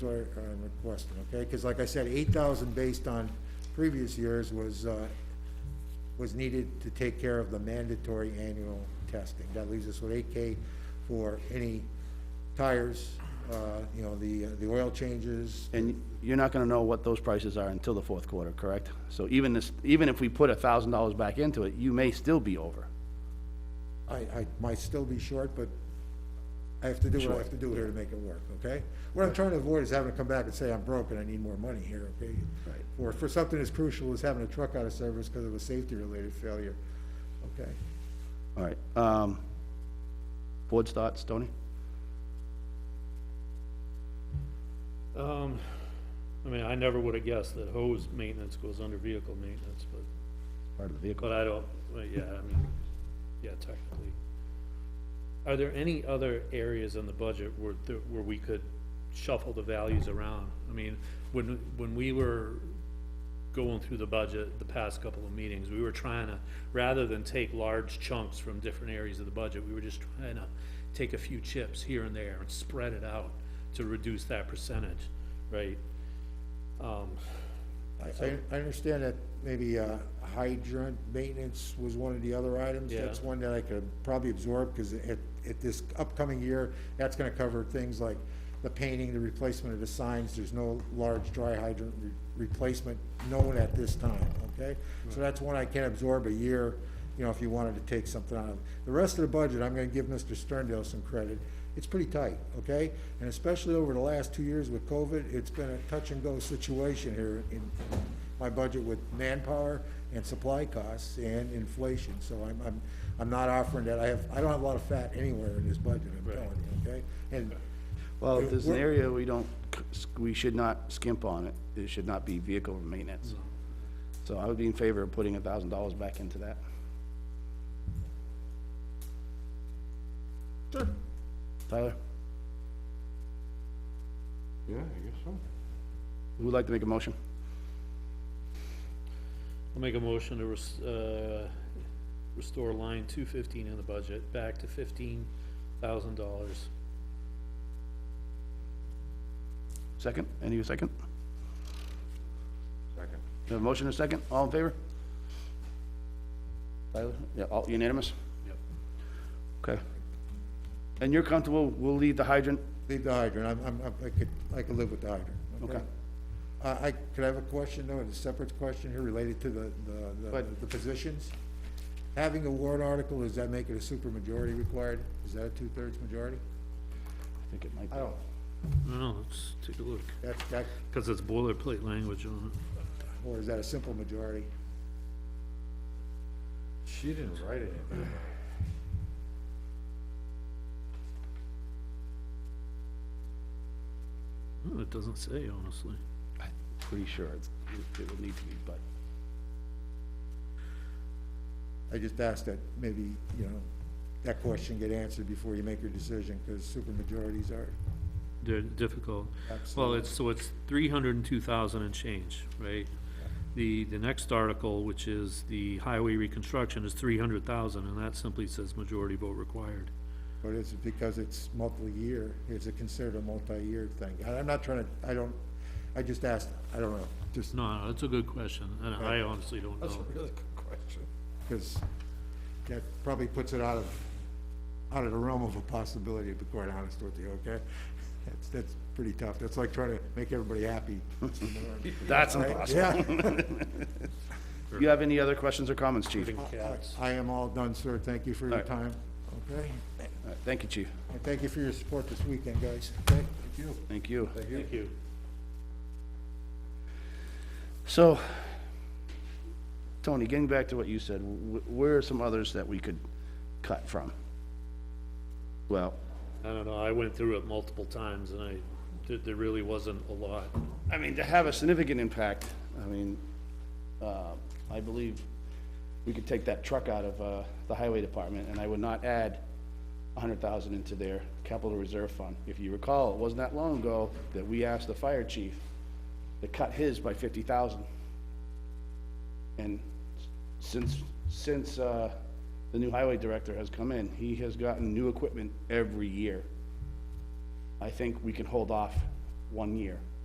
what I'm uh, requesting, okay? Because like I said, eight thousand based on previous years was, uh, was needed to take care of the mandatory annual testing. That leaves us with eight K for any tires, uh, you know, the, the oil changes. And you're not gonna know what those prices are until the fourth quarter, correct? So even this, even if we put a thousand dollars back into it, you may still be over. I, I might still be short, but I have to do what I have to do here to make it work, okay? What I'm trying to avoid is having to come back and say, I'm broke and I need more money here, okay? Right. Or for something as crucial as having a truck out of service because of a safety-related failure, okay? All right, um, board's thoughts, Tony? Um, I mean, I never would have guessed that hose maintenance goes under vehicle maintenance, but, Part of the vehicle. but I don't, well, yeah, I mean, yeah, technically. Are there any other areas in the budget where, th- where we could shuffle the values around? I mean, when, when we were going through the budget the past couple of meetings, we were trying to, rather than take large chunks from different areas of the budget, we were just trying to take a few chips here and there and spread it out to reduce that percentage, right? Um, I, I- I understand that maybe uh, hydrant maintenance was one of the other items. Yeah. That's one that I could probably absorb, because at, at this upcoming year, that's gonna cover things like the painting, the replacement of the signs. There's no large dry hydrant re- replacement known at this time, okay? So that's one I can absorb a year, you know, if you wanted to take something out of. it. The rest of the budget, I'm gonna give Mr. Sterndale some credit. It's pretty tight, okay? And especially over the last two years with COVID, it's been a touch-and-go situation here in my budget with manpower and supply costs and inflation. So I'm, I'm, I'm not offering that. I have, I don't have a lot of fat anywhere in this budget, I'm Right. telling you, okay? And Well, if there's an We're- area we don't, c- we should not skimp on it, it should not be vehicle maintenance. So I would be in favor of putting a thousand dollars back into that. Sure. Tyler, Yeah, I guess so. who would like to make a motion? I'll make a motion to res- uh, restore line two fifteen in the budget back to fifteen thousand dollars. Second, any a second? Second. Have a motion and a second, all in favor? Tyler, yeah, all unanimous? Yep. Okay. And you're comfortable, we'll leave the hydrant, Leave the hydrant, I'm, I'm, I'm- I could, I could live with the hydrant, okay? Okay. I, I, could I have a question, though, a separate question here related to the, the- Go the, ahead. the positions? Having a warrant article, does that make it a supermajority required? Is that a two-thirds majority? I think it might I be. don't, Well, let's take a look, that, that, cause it's boilerplate language on it. or is that a simple majority? She didn't write anything. Hmm, It doesn't say, honestly. I'm Pretty sure it's, it would need to be, but. I just ask that maybe, you know, that question get answered before you make your decision, because supermajorities are, They're difficult. Well, Absolutely. it's, so it's three hundred and two thousand and change, right? The, the next article, which is the highway reconstruction, is three hundred thousand, and that simply says majority vote required. but it's because it's multi-year, it's a considered a multi-year thing. And I'm not trying to, I don't, I just asked, I don't know, just No, no, that's a good question, and I honestly don't That's a know. really good question. because that probably puts it out of, out of the realm of a possibility, to be quite honest with you, okay? That's, that's pretty tough. That's like trying to make everybody happy. That's Right? Yeah. You have any other questions or comments, chief? Including cats. I am all done, sir. Thank you for your All right. time, okay? All right, Thank you, chief. And thank you for your support this weekend, guys. Thank you. Thank you. Thank you. So, Tony, getting back to what you said, wh- where are some others that we could cut from? Well, I don't know, I went through it multiple times and I, there, there really wasn't a lot. I mean, to have a significant impact, I mean, uh, I believe we could take that truck out of, uh, the highway department, and I would not add a hundred thousand into their capital reserve fund. If you recall, it wasn't that long ago that we asked the fire chief to cut his by fifty thousand. And since, since, uh, the new highway director has come in, he has gotten new equipment every year. I think we can hold off one year.